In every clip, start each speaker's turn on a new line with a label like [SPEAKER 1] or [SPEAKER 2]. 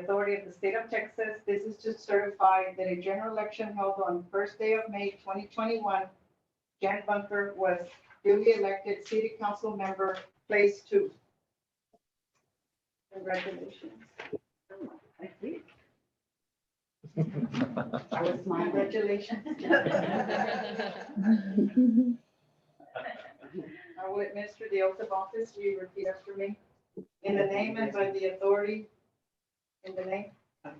[SPEAKER 1] authority of the state of Texas, this is to certify that a general election held on first day of May 2021, Jan Bunker was duly elected city council member, place two. Congratulations.
[SPEAKER 2] I was smiling.
[SPEAKER 1] Congratulations. I will administer the oath of office. Will you repeat after me? In the name and by the authority, in the name,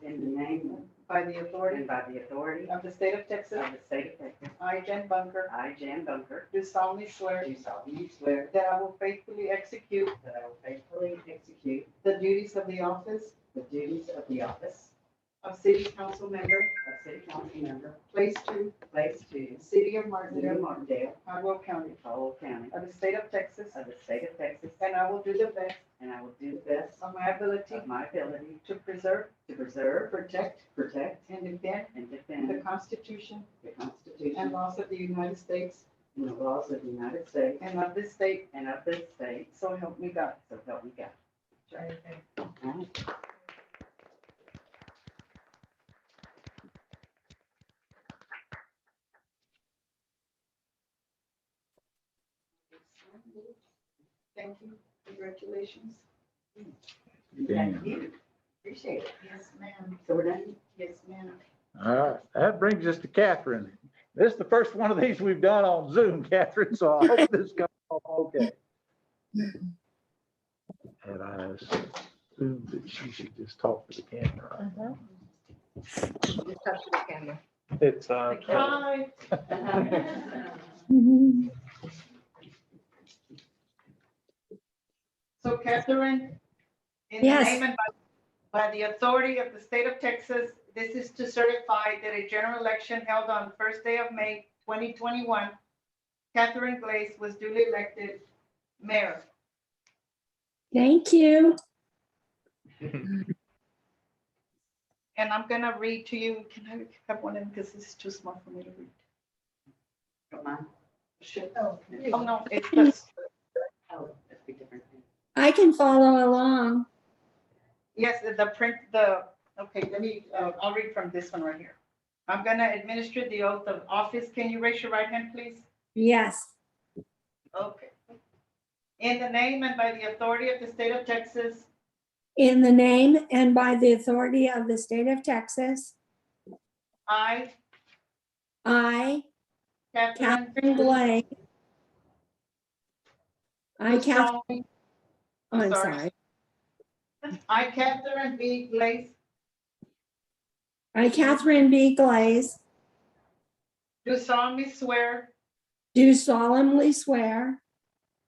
[SPEAKER 2] In the name
[SPEAKER 1] by the authority
[SPEAKER 2] and by the authority of
[SPEAKER 1] of the state of Texas,
[SPEAKER 2] the state of Texas,
[SPEAKER 1] I, Jen Bunker,
[SPEAKER 2] I, Jan Bunker,
[SPEAKER 1] do solemnly swear
[SPEAKER 2] do solemnly swear
[SPEAKER 1] that I will faithfully execute
[SPEAKER 2] that I will faithfully execute
[SPEAKER 1] the duties of the office
[SPEAKER 2] the duties of the office
[SPEAKER 1] of city council member,
[SPEAKER 2] of city council member,
[SPEAKER 1] place two,
[SPEAKER 2] place two,
[SPEAKER 1] city of
[SPEAKER 2] City of
[SPEAKER 1] Martindale,
[SPEAKER 2] Martindale,
[SPEAKER 1] Hardwell County,
[SPEAKER 2] Caldwell County,
[SPEAKER 1] of the state of Texas,
[SPEAKER 2] of the state of Texas,
[SPEAKER 1] and I will do the best
[SPEAKER 2] and I will do the best
[SPEAKER 1] of my ability
[SPEAKER 2] of my ability
[SPEAKER 1] to preserve,
[SPEAKER 2] to preserve,
[SPEAKER 1] protect,
[SPEAKER 2] protect,
[SPEAKER 1] and defend
[SPEAKER 2] and
[SPEAKER 1] the
[SPEAKER 2] defend
[SPEAKER 1] Constitution
[SPEAKER 2] the
[SPEAKER 1] and
[SPEAKER 2] Constitution
[SPEAKER 1] laws of the United States
[SPEAKER 2] and the laws of the United States
[SPEAKER 1] and of this state
[SPEAKER 2] and of this state,
[SPEAKER 1] So help me God.
[SPEAKER 2] so help me God.
[SPEAKER 1] Thank you. Congratulations.
[SPEAKER 2] Thank you. Appreciate it.
[SPEAKER 1] Yes, ma'am.
[SPEAKER 2] So we're done?
[SPEAKER 1] Yes, ma'am.
[SPEAKER 3] All right, that brings us to Catherine. This is the first one of these we've done on Zoom, Catherine, so I hope this comes off okay. And I assume that she should just talk to the camera. It's, uh,
[SPEAKER 1] Hi.
[SPEAKER 4] Mm-hmm.
[SPEAKER 1] So Catherine, in the
[SPEAKER 4] Yes.
[SPEAKER 1] name and by by the authority of the state of Texas, this is to certify that a general election held on first day of May 2021, Catherine Glaze was duly elected mayor.
[SPEAKER 4] Thank you.
[SPEAKER 1] And I'm gonna read to you, can I have one of them, because this is too small for me to read.
[SPEAKER 2] Don't mind.
[SPEAKER 1] Should-
[SPEAKER 2] Oh,
[SPEAKER 1] Oh, no, it's just,
[SPEAKER 2] that's a different thing.
[SPEAKER 4] I can follow along.
[SPEAKER 1] yes, the- the print, the, okay, let me, uh, I'll read from this one right here. I'm gonna administer the oath of office. Can you raise your right hand, please?
[SPEAKER 4] Yes.
[SPEAKER 1] Okay. In the name and by the authority of the state of Texas,
[SPEAKER 4] In the name and by the authority of the state of Texas,
[SPEAKER 1] I,
[SPEAKER 4] I,
[SPEAKER 1] Catherine.
[SPEAKER 4] Catherine Blake. I,
[SPEAKER 1] do
[SPEAKER 4] Catherine, oh,
[SPEAKER 1] solemnly-
[SPEAKER 4] I'm
[SPEAKER 1] sorry.
[SPEAKER 4] sorry.
[SPEAKER 1] I, Catherine B. Glaze,
[SPEAKER 4] I, Catherine B. Glaze,
[SPEAKER 1] do solemnly swear
[SPEAKER 4] do solemnly swear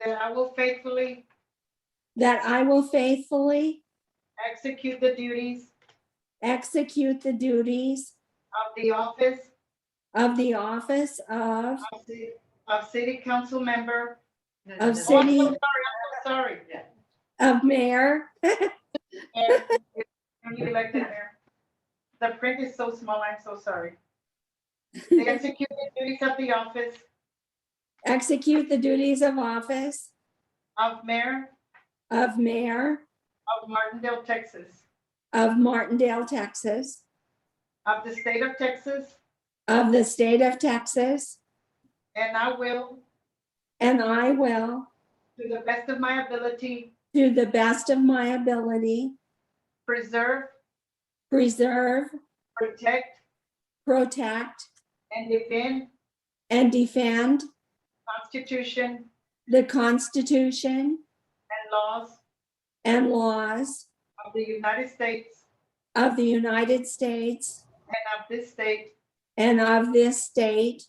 [SPEAKER 1] that I will faithfully
[SPEAKER 4] that I will faithfully
[SPEAKER 1] execute the duties
[SPEAKER 4] execute the duties
[SPEAKER 1] of the office
[SPEAKER 4] of the office of,
[SPEAKER 1] of ci- of city council member.
[SPEAKER 4] of
[SPEAKER 1] Oh, I'm
[SPEAKER 4] city,
[SPEAKER 1] so sorry, I'm so Sorry.
[SPEAKER 4] of mayor,
[SPEAKER 1] And if you elected mayor. The print is so small, I'm so sorry. They execute the duties of the office
[SPEAKER 4] execute the duties of office
[SPEAKER 1] of mayor
[SPEAKER 4] of mayor
[SPEAKER 1] of Martindale, Texas,
[SPEAKER 4] of Martindale, Texas,
[SPEAKER 1] of the state of Texas,
[SPEAKER 4] of the state of Texas,
[SPEAKER 1] and I will,
[SPEAKER 4] and I will,
[SPEAKER 1] to the best of my ability,
[SPEAKER 4] to the best of my ability,
[SPEAKER 1] preserve,
[SPEAKER 4] preserve,
[SPEAKER 1] protect,
[SPEAKER 4] protect,
[SPEAKER 1] and defend
[SPEAKER 4] and defend
[SPEAKER 1] Constitution
[SPEAKER 4] the Constitution
[SPEAKER 1] and laws
[SPEAKER 4] and laws
[SPEAKER 1] of the United States
[SPEAKER 4] of the United States
[SPEAKER 1] and of this state,
[SPEAKER 4] and of this state,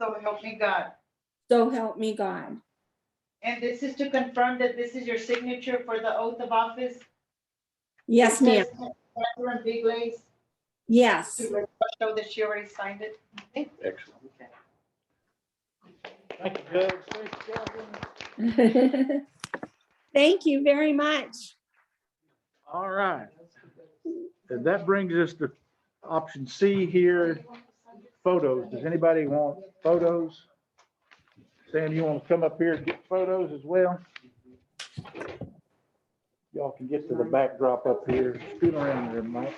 [SPEAKER 1] so help me God.
[SPEAKER 4] so help me God.
[SPEAKER 1] And this is to confirm that this is your signature for the oath of office?
[SPEAKER 4] Yes, ma'am.
[SPEAKER 1] Catherine B. Glaze,
[SPEAKER 4] Yes.
[SPEAKER 1] to show that she already signed it.
[SPEAKER 3] excellent.
[SPEAKER 2] Okay.
[SPEAKER 3] Thank you, Judge. Thank you, Catherine.
[SPEAKER 4] Thank you very much.
[SPEAKER 3] All right. And that brings us to option C here, photos. Does anybody want photos? Sam, you want to come up here and get photos as well? Y'all can get to the backdrop up here. Scoot around there, Mike.